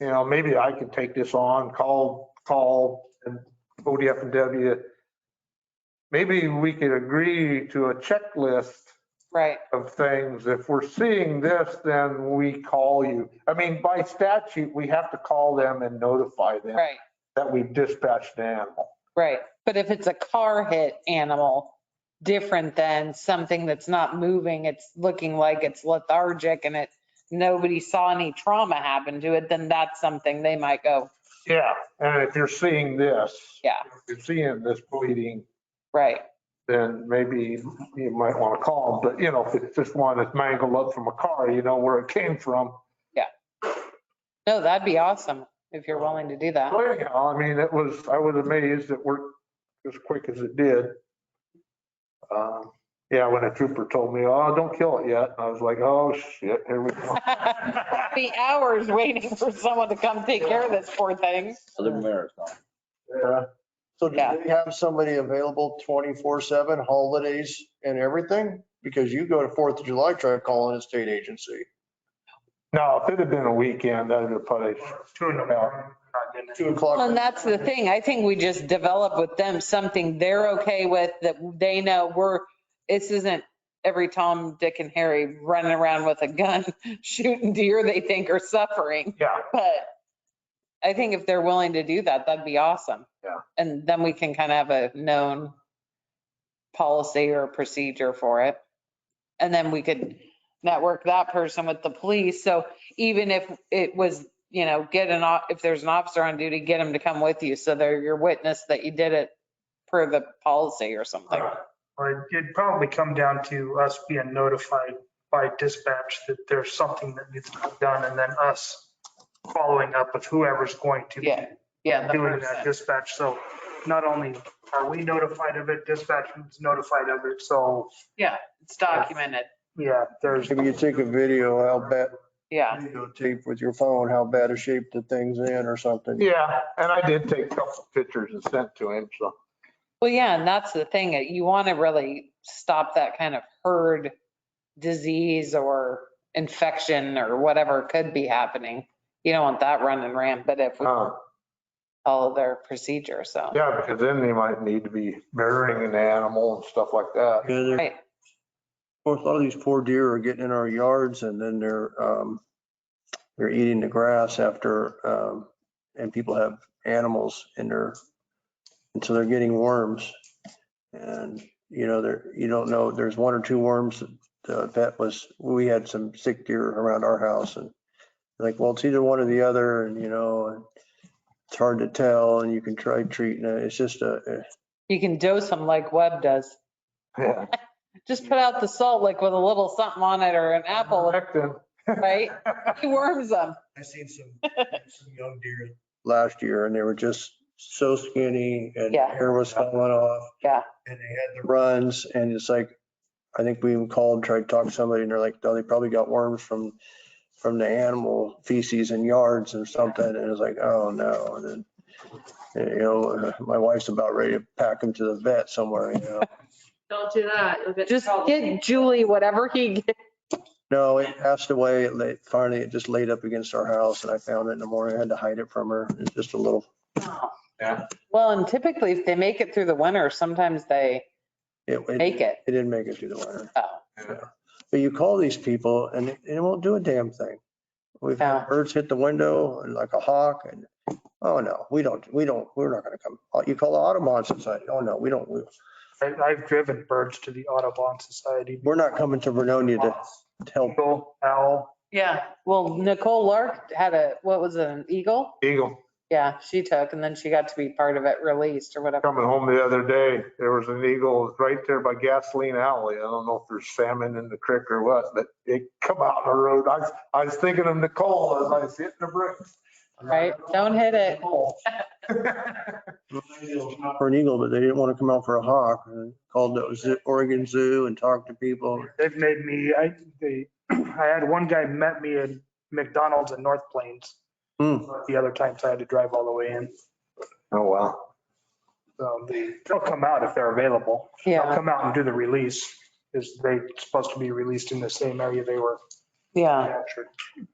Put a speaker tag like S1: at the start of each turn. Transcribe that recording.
S1: you know, maybe I could take this on, call, call and ODF and W. Maybe we could agree to a checklist
S2: Right,
S1: of things. If we're seeing this, then we call you. I mean, by statute, we have to call them and notify them
S2: right,
S1: that we've dispatched an animal.
S2: right. But if it's a car hit animal, different than something that's not moving, it's looking like it's lethargic and it, nobody saw any trauma happen to it, then that's something they might go,
S1: Yeah, and if you're seeing this,
S2: yeah,
S1: if you're seeing this bleeding,
S2: right,
S1: then maybe you might want to call them. But, you know, if it's just one that's mangled up from a car, you know where it came from.
S2: No, that'd be awesome if you're willing to do that.
S1: Well, anyhow, I mean, it was, I was amazed it worked as quick as it did. Um, Yeah, when a trooper told me, oh, don't kill it yet, I was like, oh, shit, here we go.
S2: Be hours waiting for someone to come take care of this poor thing.
S3: Southern Marathon.
S1: Yeah.
S4: So do
S2: Yeah.
S4: they have somebody available 24/7 holidays and everything? Because you go to Fourth of July, try calling a state agency.
S1: No, if it had been a weekend, I'd have probably,
S5: Two in the morning. not good enough.
S4: Two o'clock.
S2: Well, and that's the thing. I think we just develop with them something they're okay with that they know we're, this isn't every Tom, Dick and Harry running around with a gun shooting deer they think are suffering.
S1: yeah,
S2: But I think if they're willing to do that, that'd be awesome.
S1: Yeah.
S2: And then we can kind of have a known policy or procedure for it. And then we could network that person with the police. So even if it was, you know, get an, o- if there's an officer on duty, get him to come with you. So they're your witness that you did it per the policy or something.
S5: Uh, Or it'd probably come down to us being notified by dispatch that there's something that needs to be done and then us following up with whoever's going to be
S2: Yeah, yeah. the
S5: doing
S2: person.
S5: that dispatch. So not only are we notified of it, dispatch is notified of it. So
S2: Yeah, it's documented.
S5: yeah, there's,
S4: Maybe you take a video, how bad,
S2: Yeah,
S4: videotape with your phone, how bad a shape the thing's in or something.
S1: yeah, and I did take a couple pictures and sent to him, so.
S2: well, yeah, and that's the thing. uh, You want to really stop that kind of herd disease or infection or whatever could be happening. You don't want that running rampant if we
S1: uh,
S2: follow their procedure, so.
S1: Yeah, because then they might need to be burying an animal and stuff like that.
S4: Yeah, they're-
S2: Right.
S4: Of course, a lot of these poor deer are getting in our yards and then they're, um, they're eating the grass after, um, and people have animals in their, and so they're getting worms. And, you know, there, you don't know, there's one or two worms that- uh, that was, we had some sick deer around our house and like, well, it's either one or the other and, you know, and it's hard to tell and you can try treating it. It's just a,
S2: You can dose them like Webb does.
S1: Yeah.
S2: Just put out the salt like with a little something on it or an apple,
S1: Lectin.
S2: right? He worms them.
S6: I seen some, some young deer.
S4: last year and they were just so skinny and
S2: Yeah.
S4: hair was falling off
S6: And they had
S4: the runs and it's like, I think we even called, tried to talk to somebody and they're like, oh, they probably got worms from, from the animal feces and yards or something. And it's like, oh no. And then, you know, my wife's about ready to pack them to the vet somewhere, you know.
S7: Don't do that. You'll get in
S2: Just
S7: trouble.
S2: get Julie whatever he gets.
S4: No, it passed away. It lay- Finally, it just laid up against our house and I found it in the morning. I had to hide it from her. It's just a little
S2: Well, and typically if they make it through the winter, sometimes they
S4: It, it-
S2: Make it.
S4: It didn't make it through the winter.
S2: Oh.
S4: Yeah. But you call these people and they they won't do a damn thing. We've
S2: Yeah.
S4: had birds hit the window and like a hawk and, oh no, we don't, we don't, we're not gonna come. Oh, You call the Audubon Society, oh no, we don't, we-
S5: I- I've driven birds to the Audubon Society.
S4: we're not coming to Vernonia to to help.
S5: Eagle, owl,
S2: Yeah. Well, Nicole Lark had a, what was it, an eagle?
S1: Eagle,
S2: Yeah, she took and then she got to be part of it released or whatever.
S1: coming home the other day, there was an eagle right there by gasoline alley. I don't know if there's salmon in the creek or what, but it come out in the road. I, was- I was thinking of Nicole as I was hitting the brakes.
S2: Right? Don't hit it.
S4: For an eagle, but they didn't want to come out for a hawk and called the zoo- Oregon Zoo and talked to people.
S5: they've made me, I, they, I had one guy met me at McDonald's in North Plains.
S4: Hmm.
S5: The other times I had to drive all the way in.
S1: Oh, wow.
S5: Um, they- They'll come out if they're available. They'll
S2: Yeah,
S5: come out and do the release, is they supposed to be released in the same area they were
S2: yeah.
S5: captured.